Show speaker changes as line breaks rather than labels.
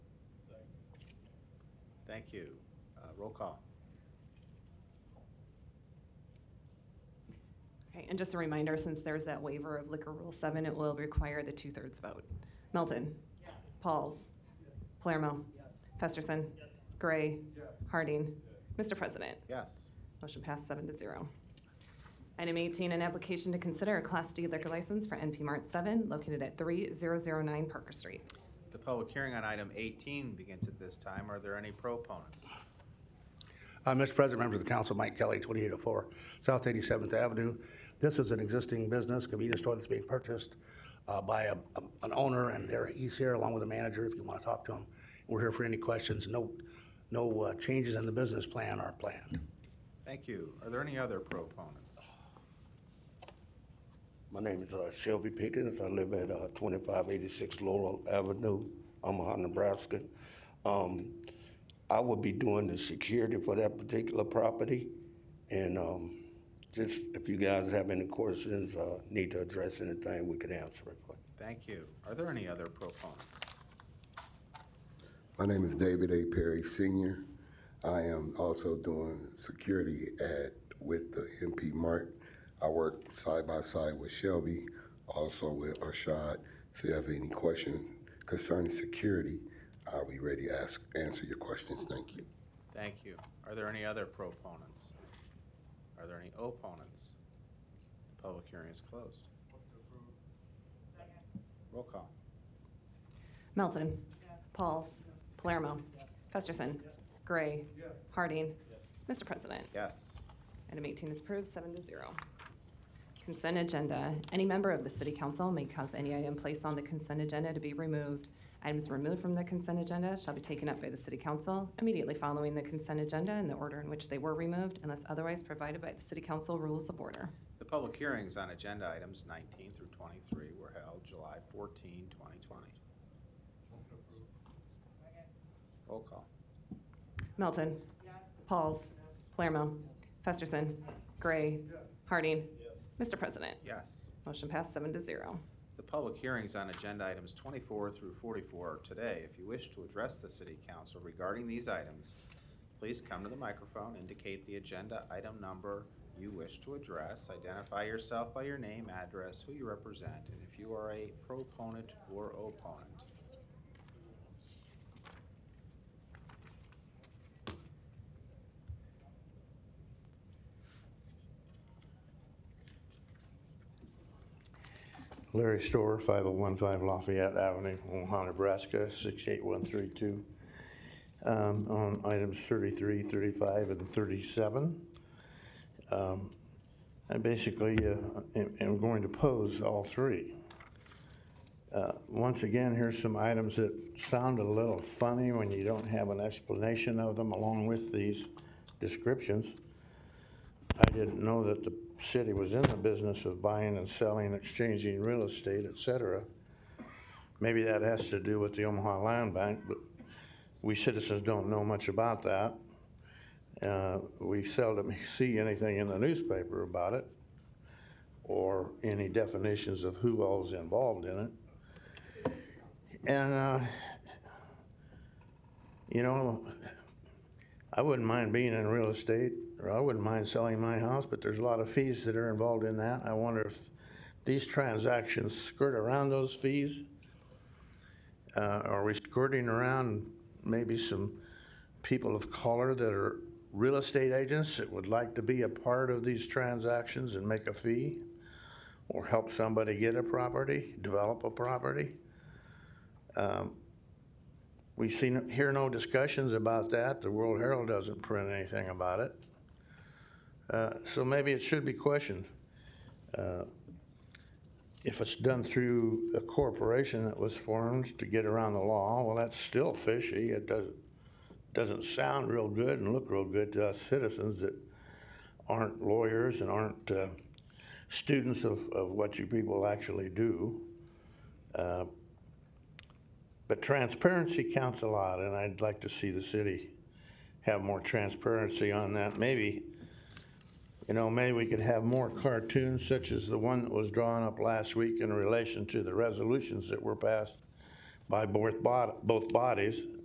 Thank you. Uh, Roll call.
Okay, and just a reminder, since there's that waiver of liquor rule seven, it will require the two-thirds vote. Melton. Pauls. Palermo. Festerson. Gray. Harding. Mr. President,
Yes.
motion passed seven to zero. Item 18, an application to consider a Class D liquor license for NP Mart 7 located at 3009 Parker Street.
The public hearing on item 18 begins at this time. Are there any proponents?
Uh, Mr. President, members of the council, Mike Kelly, 2804 South 87th Avenue. This is an existing business, convenience store that's being purchased uh, by a- a- an owner, and there, he's here along with a manager if you want to talk to him. We're here for any questions. No, no uh, changes in the business plan are planned.
Thank you. Are there any other proponents?
My name is uh, Shelby Pickens. I live at uh, 2586 Laurel Avenue, Omaha, Nebraska. Um, I will be doing the security for that particular property. And um, just if you guys have any questions, uh, need to address anything, we can answer it for you.
Thank you. Are there any other proponents?
My name is David A. Perry Sr. I am also doing security at, with the MP Mart. I work side by side with Shelby, also with Arshad. If you have any question concerning security, I'll be ready to ask, answer your questions. Thank you.
Thank you. Are there any other proponents? Are there any opponents? The public hearing is closed. Roll call.
Melton. Pauls. Palermo. Festerson. Gray. Harding. Mr. President,
Yes.
Item 18 is approved, seven to zero. Consent agenda. Any member of the city council may cause any item placed on the consent agenda to be removed. Items removed from the consent agenda shall be taken up by the city council immediately following the consent agenda in the order in which they were removed unless otherwise provided by the city council rules of order.
The public hearings on agenda items 19 through 23 were held July 14, 2020. Roll call.
Melton. Pauls. Palermo. Festerson. Gray. Harding. Mr. President,
Yes.
motion passed seven to zero.
The public hearings on agenda items 24 through 44 are today. If you wish to address the city council regarding these items, please come to the microphone, indicate the agenda item number you wish to address, identify yourself by your name, address, who you represent, and if you are a proponent or opponent.
Larry Store, 5015 Lafayette Avenue, Omaha, Nebraska, 68132. Um, On items 33, 35, and 37. Um, I basically uh, am am going to pose all three. Uh, Once again, here's some items that sound a little funny when you don't have an explanation of them along with these descriptions. I didn't know that the city was in the business of buying and selling, exchanging real estate, et cetera. Maybe that has to do with the Omaha Land Bank, but we citizens don't know much about that. Uh, We seldom see anything in the newspaper about it or any definitions of who all's involved in it. And, uh, you know, I wouldn't mind being in real estate, or I wouldn't mind selling my house, but there's a lot of fees that are involved in that. I wonder if these transactions skirt around those fees? Uh, are we skirting around maybe some people of color that are real estate agents that would like to be a part of these transactions and make a fee? Or help somebody get a property, develop a property? Um, we see, no- hear no discussions about that. The World Herald doesn't print anything about it. Uh, So maybe it should be questioned. Uh, If it's done through a corporation that was formed to get around the law, well, that's still fishy. It doesn't, doesn't sound real good and look real good to us citizens that aren't lawyers and aren't uh, students of, of what you people actually do. Uh, but transparency counts a lot, and I'd like to see the city have more transparency on that. Maybe, you know, maybe we could have more cartoons such as the one that was drawn up last week in relation to the resolutions that were passed by both bod- both bodies